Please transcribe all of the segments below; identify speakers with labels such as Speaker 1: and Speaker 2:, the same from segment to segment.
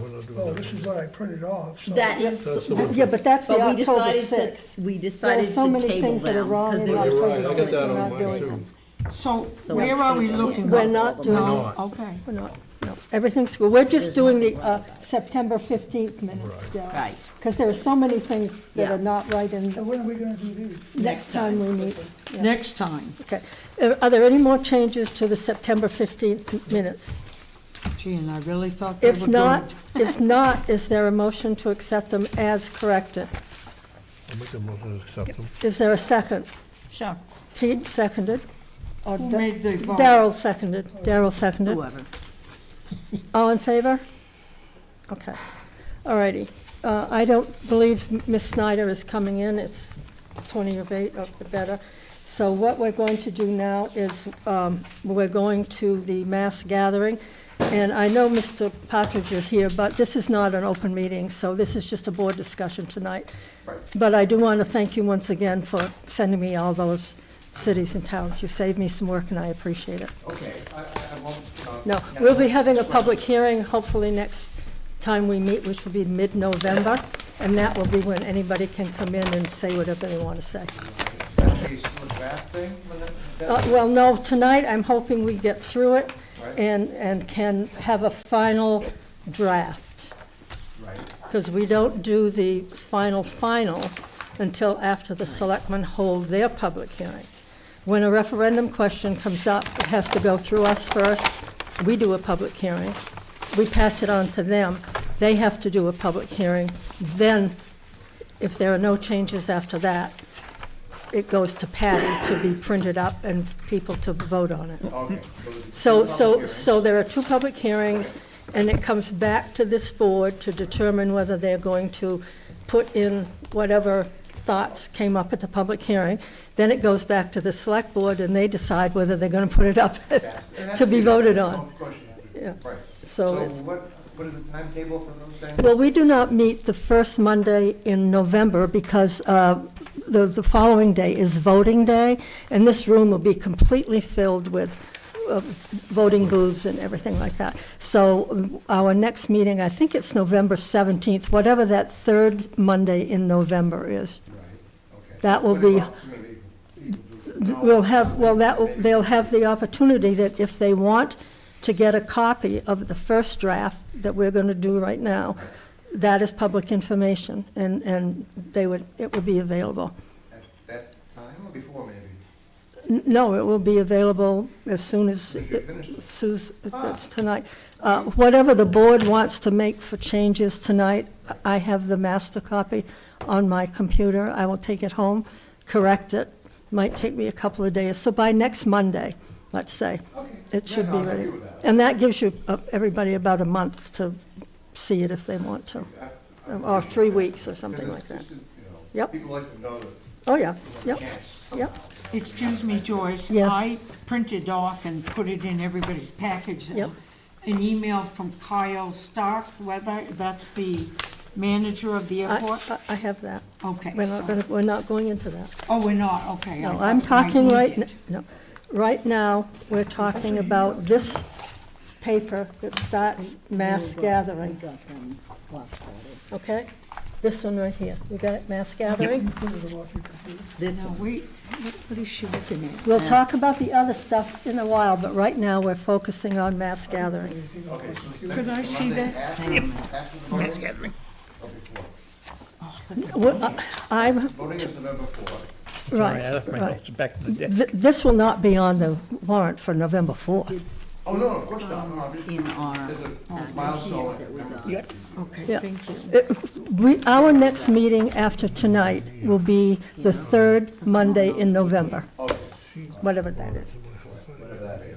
Speaker 1: doing
Speaker 2: Well,
Speaker 1: that.
Speaker 2: Oh, this is what I printed off, so.
Speaker 3: That is,
Speaker 1: That's the
Speaker 3: but
Speaker 1: one.
Speaker 4: Yeah, but that's the
Speaker 3: we
Speaker 4: October
Speaker 3: decided
Speaker 4: 6th.
Speaker 3: to, we
Speaker 4: There are
Speaker 3: decided to
Speaker 4: so many
Speaker 3: table
Speaker 4: things that are
Speaker 3: them.
Speaker 4: wrong
Speaker 3: 'cause
Speaker 4: in
Speaker 3: they were
Speaker 4: October.
Speaker 1: You're right, I
Speaker 3: so
Speaker 1: got that
Speaker 3: many-
Speaker 1: on
Speaker 4: We're not
Speaker 1: mine
Speaker 4: doing
Speaker 1: too.
Speaker 5: So
Speaker 3: So
Speaker 5: where
Speaker 3: we're
Speaker 5: are we
Speaker 3: taking-
Speaker 5: looking?
Speaker 4: We're not doing,
Speaker 1: No.
Speaker 5: Okay.
Speaker 4: we're not, no, everything's, good. we're just doing the uh, September 15th minutes, Right.
Speaker 3: Right.
Speaker 4: Because there are so many things that
Speaker 3: Yeah.
Speaker 4: are not right
Speaker 2: So
Speaker 4: in,
Speaker 2: when are we gonna do these?
Speaker 4: next time we meet.
Speaker 5: Next time.
Speaker 4: Okay. Uh, Are there any more changes to the September 15th minutes?
Speaker 5: Gee, and I really thought they were
Speaker 4: If
Speaker 5: going.
Speaker 4: not, if not, is there a motion to accept them as corrected?
Speaker 1: I'll make a motion to accept them.
Speaker 4: Is there a second?
Speaker 5: Sure.
Speaker 4: Pete seconded? or
Speaker 5: Who
Speaker 4: Da-
Speaker 5: made the vote?
Speaker 4: Daryl seconded, Daryl seconded.
Speaker 5: Whoever.
Speaker 4: All in favor? Okay, all righty. Uh, I don't believe Ms. Snyder is coming in, it's 20 of 8 or better. So what we're going to do now is, um, we're going to the mass gathering, and I know, Mr. Partridge, you're here, but this is not an open meeting, so this is just a board discussion tonight. But I do want to thank you once again for sending me all those cities and towns. You saved me some work, and I appreciate it.
Speaker 6: Okay, I, I I won't. uh,
Speaker 4: No, we'll be having a public hearing, hopefully next time we meet, which will be mid-November, and that will be when anybody can come in and say whatever they want to say.
Speaker 6: That's the sort of draft thing, when it-
Speaker 4: Uh, Well, no, tonight, I'm hoping we get through it and, and can have a final draft,
Speaker 6: Right,
Speaker 4: because we don't do the final, final until after the selectmen hold their public hearing. When a referendum question comes up, it has to go through us first. We do a public hearing. We pass it on to them. They have to do a public hearing. Then, if there are no changes after that, it goes to Patty to be printed up and people to vote on it.
Speaker 6: okay.
Speaker 4: So, so,
Speaker 6: Public hearing.
Speaker 4: so there are two public hearings, and it comes back to this board to determine whether they're going to put in whatever thoughts came up at the public hearing. Then it goes back to the select board, and they decide whether they're gonna put it up
Speaker 6: That's- and that's
Speaker 4: to be
Speaker 6: the-
Speaker 4: voted on.
Speaker 6: Of course you have to.
Speaker 4: Yeah.
Speaker 6: Right.
Speaker 4: So
Speaker 6: So
Speaker 4: it's-
Speaker 6: what, what is the timetable for those things?
Speaker 4: Well, we do not meet the first Monday in November because uh, the, the following day is voting day, and this room will be completely filled with uh, voting booths and everything like that. So um, our next meeting, I think it's November 17th, whatever that third Monday in November is.
Speaker 6: Right, okay.
Speaker 4: that will
Speaker 6: What
Speaker 4: be-
Speaker 6: about community? People do- no,
Speaker 4: We'll have, well, that, will-
Speaker 6: maybe.
Speaker 4: they'll have the opportunity that if they want to get a copy of the first draft that we're going to do right now, that is public information, and, and they would, it would be available.
Speaker 6: At that time or before maybe?
Speaker 4: N- No, it will be available as soon as,
Speaker 6: Because you finished it.
Speaker 4: Sue's, it's tonight. Uh, Whatever the board wants to make for changes tonight, I have the master copy on my computer. I will take it home, correct it. Might take me a couple of days. So by next Monday, let's say,
Speaker 6: Okay.
Speaker 4: it
Speaker 6: Yeah,
Speaker 4: should be
Speaker 6: no, I'm
Speaker 4: ready.
Speaker 6: happy with that.
Speaker 4: And that gives you, uh, everybody about a month to see it if they want to,
Speaker 6: I- I
Speaker 4: or
Speaker 6: appreciate
Speaker 4: three
Speaker 6: that.
Speaker 4: weeks or something
Speaker 6: Because
Speaker 4: like that.
Speaker 6: it's just, you know,
Speaker 4: Yep.
Speaker 6: People like to know that.
Speaker 4: Oh, yeah,
Speaker 6: there's a
Speaker 4: yep,
Speaker 6: chance
Speaker 4: yep.
Speaker 6: somehow, you know.
Speaker 5: Excuse me, Joyce.
Speaker 4: Yes.
Speaker 5: I printed off and put it in everybody's package.
Speaker 4: Yep.
Speaker 5: An email from Kyle Stark, whether, that's the manager of the
Speaker 4: I-
Speaker 5: airport?
Speaker 4: I, I have that.
Speaker 5: Okay,
Speaker 4: We're not
Speaker 5: so-
Speaker 4: gonna, we're not going into that.
Speaker 5: Oh, we're not, okay. I
Speaker 4: No,
Speaker 5: thought
Speaker 4: I'm
Speaker 5: you might
Speaker 4: talking
Speaker 5: need
Speaker 4: right,
Speaker 5: it.
Speaker 4: n- no, right now, we're talking about this paper that starts mass gathering, okay? This one right here, you got it, mass gathering?
Speaker 2: Printed them off your computer.
Speaker 3: This
Speaker 5: No,
Speaker 3: one.
Speaker 5: wait, what what is she looking at?
Speaker 4: We'll talk about the other stuff in a while, but right now, we're focusing on mass gatherings.
Speaker 6: Okay, so it's
Speaker 5: Could I
Speaker 6: next
Speaker 5: see
Speaker 6: Monday
Speaker 5: that?
Speaker 6: after-
Speaker 5: Hang on a
Speaker 6: After the voting? Or before?
Speaker 4: Well, I- uh, I'm,
Speaker 6: Voting is November fourth.
Speaker 7: Sorry, I
Speaker 4: right,
Speaker 7: left my
Speaker 4: right.
Speaker 7: notes back to the desk.
Speaker 4: Th- This will not be on the warrant for November 4th.
Speaker 6: Oh, no, of course not, no, I'm just,
Speaker 3: In our
Speaker 6: there's a
Speaker 3: packet
Speaker 6: milestone.
Speaker 3: that we
Speaker 6: number.
Speaker 3: got.
Speaker 5: Okay,
Speaker 4: Yeah.
Speaker 5: thank you.
Speaker 4: We, our next meeting after tonight will be the third Monday in November,
Speaker 6: Okay,
Speaker 4: whatever that is.
Speaker 6: whatever that is, okay.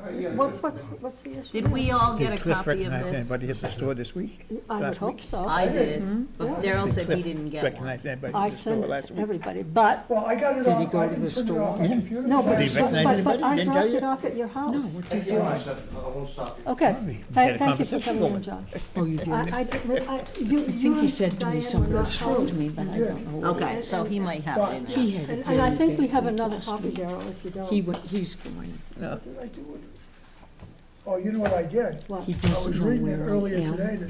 Speaker 6: All right, yeah,
Speaker 4: What's, what's, what's the issue?
Speaker 3: Did we all
Speaker 7: Did
Speaker 3: get a
Speaker 7: Cliff
Speaker 3: copy of
Speaker 7: recognize
Speaker 3: this?
Speaker 7: anybody at the store this week?
Speaker 4: I would
Speaker 7: Last
Speaker 4: hope
Speaker 7: week?
Speaker 4: so.
Speaker 3: I did, Mm-hmm. but Daryl said he didn't get one.
Speaker 7: Recognize anybody
Speaker 4: I
Speaker 7: at the store
Speaker 4: sent it
Speaker 7: last
Speaker 4: to
Speaker 7: week?
Speaker 4: everybody, but,
Speaker 2: Well, I got it off, I didn't print it off my computer.
Speaker 4: no, but,
Speaker 7: Did he recognize
Speaker 4: but, but I
Speaker 7: anybody? Didn't tell
Speaker 4: dropped it
Speaker 7: you?
Speaker 4: off at your house.
Speaker 6: Thank you, I said, I won't stop you.
Speaker 4: Okay,
Speaker 7: had
Speaker 4: Thank-
Speaker 7: a
Speaker 4: thank you for
Speaker 7: conversation
Speaker 4: coming
Speaker 7: going.
Speaker 4: in, John.
Speaker 5: Oh, you did.
Speaker 4: I, I, I, you,
Speaker 5: I
Speaker 4: you
Speaker 5: think he said
Speaker 4: and
Speaker 5: to me
Speaker 4: Diane
Speaker 5: something
Speaker 4: were not
Speaker 5: that's true to
Speaker 4: home.
Speaker 5: me, but I don't know.
Speaker 3: Okay, so he might have it in there.
Speaker 5: He had a
Speaker 4: And, and I
Speaker 5: very
Speaker 4: think we
Speaker 5: bad
Speaker 4: have
Speaker 5: week
Speaker 4: another
Speaker 5: last
Speaker 4: copy,
Speaker 5: week.
Speaker 4: Darrell, if you don't.
Speaker 5: He, wa- he's going,
Speaker 2: What did I do with it? Oh, you know what I did?
Speaker 4: What?
Speaker 5: he
Speaker 2: I was
Speaker 5: doesn't know
Speaker 2: reading
Speaker 5: where
Speaker 2: it
Speaker 5: I
Speaker 2: earlier
Speaker 5: am.
Speaker 2: today to